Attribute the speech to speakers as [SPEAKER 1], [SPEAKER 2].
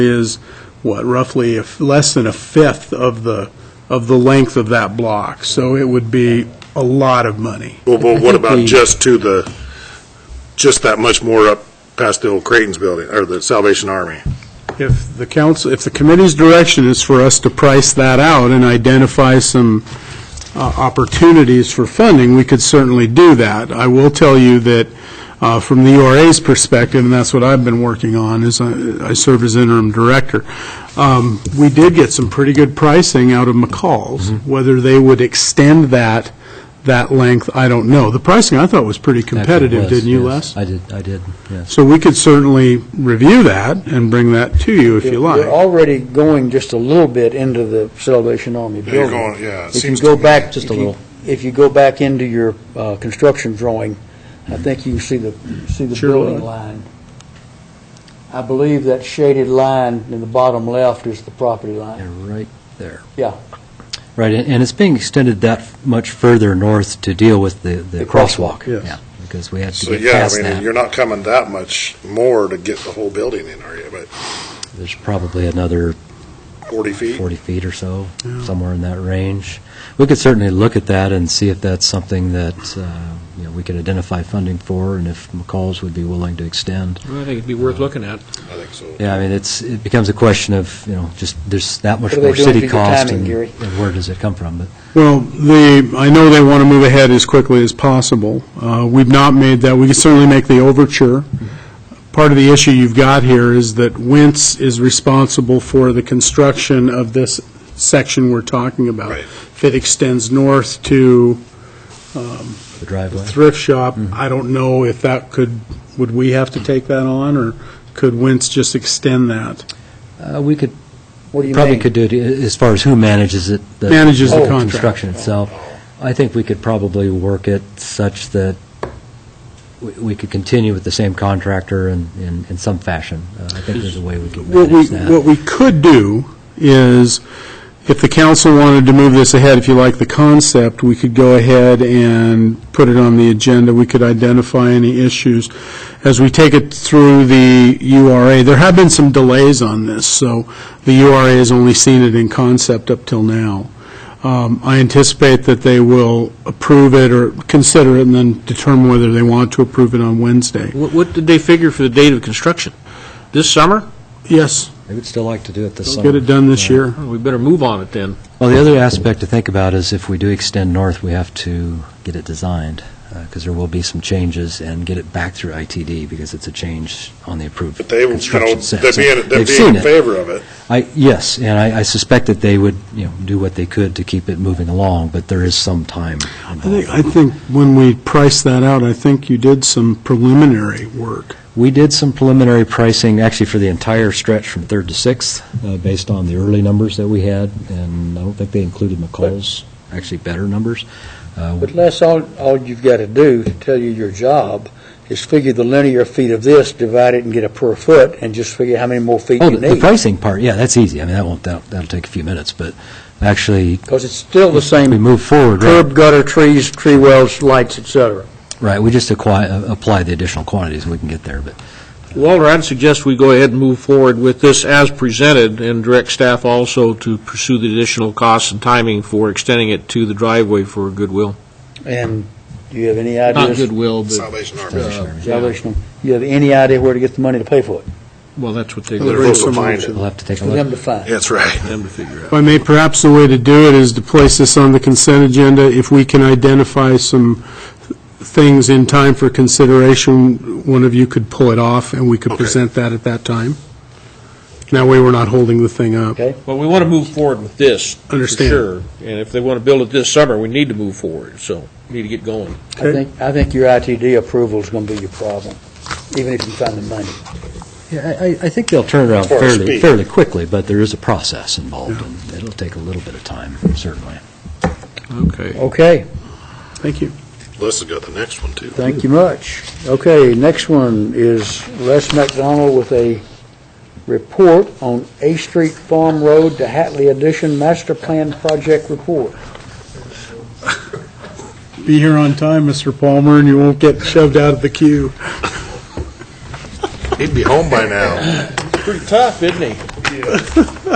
[SPEAKER 1] is, what, roughly, if, less than a fifth of the, of the length of that block, so it would be a lot of money.
[SPEAKER 2] Well,
[SPEAKER 3] I
[SPEAKER 2] but what
[SPEAKER 3] think
[SPEAKER 2] about
[SPEAKER 3] the-
[SPEAKER 2] just to the, just that much more up past the old Creighton's building, or the Salvation Army?
[SPEAKER 1] If the council, if the committee's direction is for us to price that out and identify some uh, opportunities for funding, we could certainly do that. I will tell you that uh, from the URA's perspective, and that's what I've been working on, is I I serve as interim director, um, we did get some pretty good pricing out of McCall's.
[SPEAKER 3] Mm-hmm.
[SPEAKER 1] Whether they would extend that, that length, I don't know. The pricing, I thought, was pretty competitive,
[SPEAKER 3] Actually, it was,
[SPEAKER 1] didn't you,
[SPEAKER 3] yes.
[SPEAKER 1] Les?
[SPEAKER 3] I did, I did, yes.
[SPEAKER 1] So we could certainly review that and bring that to you if you like.
[SPEAKER 4] You're already going just a little bit into the Salvation Army
[SPEAKER 2] You're
[SPEAKER 4] building.
[SPEAKER 2] going, yeah, it
[SPEAKER 4] If you
[SPEAKER 2] seems
[SPEAKER 4] go
[SPEAKER 2] to me.
[SPEAKER 4] back.
[SPEAKER 3] Just a
[SPEAKER 4] if you-
[SPEAKER 3] little.
[SPEAKER 4] If you go back into your uh, construction drawing, I think you see the, see the
[SPEAKER 1] Sure.
[SPEAKER 4] building line. I believe that shaded line in the bottom left is the property line.
[SPEAKER 3] They're right there.
[SPEAKER 4] Yeah.
[SPEAKER 3] Right, and and it's being extended that much further north to deal with the, the
[SPEAKER 4] The
[SPEAKER 3] crosswalk.
[SPEAKER 4] crosswalk,
[SPEAKER 1] yes.
[SPEAKER 3] Yeah, Because we had
[SPEAKER 2] So,
[SPEAKER 3] to get
[SPEAKER 2] yeah,
[SPEAKER 3] past
[SPEAKER 2] I mean,
[SPEAKER 3] that.
[SPEAKER 2] you're not coming that much more to get the whole building in, are you, but
[SPEAKER 3] There's probably another
[SPEAKER 2] 40 feet?
[SPEAKER 3] 40 feet or so, somewhere in that range. We could certainly look at that and see if that's something that, uh, you know, we could identify funding for, and if McCall's would be willing to extend.
[SPEAKER 5] Well, I think it'd be worth looking at.
[SPEAKER 2] I think so.
[SPEAKER 3] Yeah, I mean, it's, it becomes a question of, you know, just, there's that much
[SPEAKER 4] What are they
[SPEAKER 3] more
[SPEAKER 4] doing for
[SPEAKER 3] city
[SPEAKER 4] your
[SPEAKER 3] cost,
[SPEAKER 4] timing,
[SPEAKER 3] and
[SPEAKER 4] Gary?
[SPEAKER 3] and where does it come from? But
[SPEAKER 1] Well, the, I know they want to move ahead as quickly as possible. Uh, We've not made that, we can certainly make the overture. Part of the issue you've got here is that Wentz is responsible for the construction of this section we're talking about.
[SPEAKER 2] Right.
[SPEAKER 1] If it extends north to
[SPEAKER 3] The driveway?
[SPEAKER 1] thrift shop, I don't know if that could, would we have to take that on, or could Wentz just extend that?
[SPEAKER 3] Uh, We could
[SPEAKER 4] What do you mean?
[SPEAKER 3] Probably could do it i- as far as who manages it. the-
[SPEAKER 1] Manages the
[SPEAKER 3] whole
[SPEAKER 1] contract.
[SPEAKER 3] Construction itself. I think we could probably work it such that we- we could continue with the same contractor in, in, in some fashion. Uh, I think there's a way we could
[SPEAKER 1] What we,
[SPEAKER 3] manage
[SPEAKER 1] what
[SPEAKER 3] that.
[SPEAKER 1] we could do is, if the council wanted to move this ahead, if you like the concept, we could go ahead and put it on the agenda, we could identify any issues. As we take it through the URA, there have been some delays on this, so the URA has only seen it in concept up till now. Um, I anticipate that they will approve it or consider it and then determine whether they want to approve it on Wednesday.
[SPEAKER 5] What, what did they figure for the date of construction? This summer?
[SPEAKER 1] Yes,
[SPEAKER 3] I would still like to do it this summer.
[SPEAKER 1] get it done this
[SPEAKER 3] Yeah.
[SPEAKER 1] year.
[SPEAKER 5] Oh, We better move on it then.
[SPEAKER 3] Well, the other aspect to think about is if we do extend north, we have to get it designed, because there will be some changes, and get it back through ITD, because it's a change on the approved
[SPEAKER 2] But they, you know,
[SPEAKER 3] construction set.
[SPEAKER 2] they'd
[SPEAKER 3] So
[SPEAKER 2] be, in- they'd
[SPEAKER 3] they've
[SPEAKER 2] be
[SPEAKER 3] seen
[SPEAKER 2] in
[SPEAKER 3] it.
[SPEAKER 2] favor of it.
[SPEAKER 3] I, yes, and I I suspect that they would, you know, do what they could to keep it moving along, but there is some time
[SPEAKER 1] I think,
[SPEAKER 3] involved.
[SPEAKER 1] I think when we priced that out, I think you did some preliminary work.
[SPEAKER 3] We did some preliminary pricing, actually for the entire stretch from Third to Sixth, uh, based on the early numbers that we had, and I don't think they included McCall's, actually better numbers. Uh,
[SPEAKER 4] But Les, all, all you've got to do to tell you your job is figure the linear feet of this, divide it and get a per foot, and just figure how many more feet
[SPEAKER 3] Oh,
[SPEAKER 4] you
[SPEAKER 3] the- the
[SPEAKER 4] need.
[SPEAKER 3] pricing part, yeah, that's easy. I mean, that won't, that'll that'll take a few minutes, but actually,
[SPEAKER 4] Because it's still the
[SPEAKER 3] we
[SPEAKER 4] same
[SPEAKER 3] move forward, right?
[SPEAKER 4] curb, gutter, trees, tree wells, lights, et cetera.
[SPEAKER 3] Right, we just acqui- uh, apply the additional quantities, and we can get there, but
[SPEAKER 5] Walter, I'd suggest we go ahead and move forward with this as presented and direct staff also to pursue the additional costs and timing for extending it to the driveway for Goodwill.
[SPEAKER 4] And do you have any
[SPEAKER 5] Not
[SPEAKER 4] ideas?
[SPEAKER 5] Goodwill, but, uh,
[SPEAKER 2] Salvation Army.
[SPEAKER 3] Salvation Army.
[SPEAKER 4] Salvation, you have any idea where to get the money to pay for it?
[SPEAKER 5] well, that's what they're
[SPEAKER 2] They're
[SPEAKER 5] going
[SPEAKER 2] also find it.
[SPEAKER 3] we'll have to take a
[SPEAKER 4] For
[SPEAKER 3] look.
[SPEAKER 4] them to find.
[SPEAKER 2] That's right.
[SPEAKER 5] them to figure out.
[SPEAKER 1] If I may, perhaps the way to do it is to place this on the consent agenda. If we can identify some things in time for consideration, one of you could pull it off, and we could
[SPEAKER 2] Okay.
[SPEAKER 1] present that at that time. And That way, we're not holding the thing up.
[SPEAKER 4] Okay.
[SPEAKER 5] Well, we want to move forward with this, for
[SPEAKER 1] Understand.
[SPEAKER 5] sure. And if they want to build it this summer, we need to move forward, so we need to get going.
[SPEAKER 4] I think, I think your ITD approval is going to be your problem, even if you find the money.
[SPEAKER 3] Yeah, I, I- I think they'll turn around
[SPEAKER 2] Or
[SPEAKER 3] fairly,
[SPEAKER 2] speed.
[SPEAKER 3] fairly quickly, but there is a process involved, and it'll take a little bit of time, certainly.
[SPEAKER 5] Okay.
[SPEAKER 4] Okay,
[SPEAKER 1] Thank you.
[SPEAKER 2] Les has got the next one, too.
[SPEAKER 4] thank you much. Okay, next one is Les McDonald with a report on A Street Farm Road to Hatley Addition Master Plan Project Report.
[SPEAKER 1] Be here on time, Mr. Palmer, and you won't get shoved out of the queue.
[SPEAKER 2] He'd be home by now.
[SPEAKER 5] Pretty tough, isn't he?
[SPEAKER 2] you.